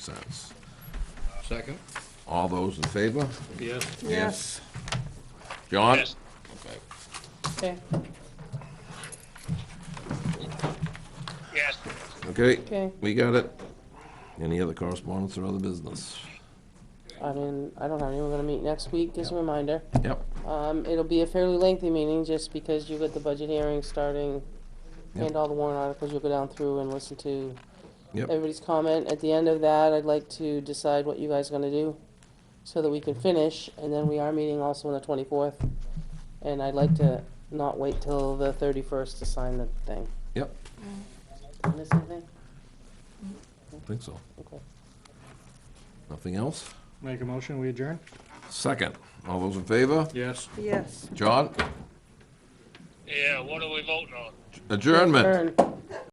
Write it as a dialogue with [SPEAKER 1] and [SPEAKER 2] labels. [SPEAKER 1] cents.
[SPEAKER 2] Second?
[SPEAKER 1] All those in favor?
[SPEAKER 2] Yes.
[SPEAKER 1] Yes. John?
[SPEAKER 3] Yes.
[SPEAKER 1] Okay.
[SPEAKER 4] Okay,
[SPEAKER 3] Yes.
[SPEAKER 1] Okay?
[SPEAKER 4] Okay.
[SPEAKER 1] We got it. Any other correspondence or other business?
[SPEAKER 4] I mean, I don't have anyone gonna meet next week, as a reminder.
[SPEAKER 1] Yep,
[SPEAKER 4] Um, it'll be a fairly lengthy meeting, just because you got the budget hearing starting,
[SPEAKER 1] Yep.
[SPEAKER 4] and all the warrant articles, you'll go down through and listen to
[SPEAKER 1] yep,
[SPEAKER 4] everybody's comment. At the end of that, I'd like to decide what you guys are gonna do, so that we can finish, and then we are meeting also on the twenty-fourth. And I'd like to not wait till the thirty-first to sign the thing.
[SPEAKER 1] yep,
[SPEAKER 4] Did I Miss anything?
[SPEAKER 1] I think so.
[SPEAKER 4] Okay.
[SPEAKER 1] Nothing else?
[SPEAKER 2] Make a motion, we adjourn?
[SPEAKER 1] Second, all those in favor?
[SPEAKER 2] Yes.
[SPEAKER 5] Yes.
[SPEAKER 1] John?
[SPEAKER 3] Yeah, what are we voting on?
[SPEAKER 1] Adjournment.
[SPEAKER 4] Turn.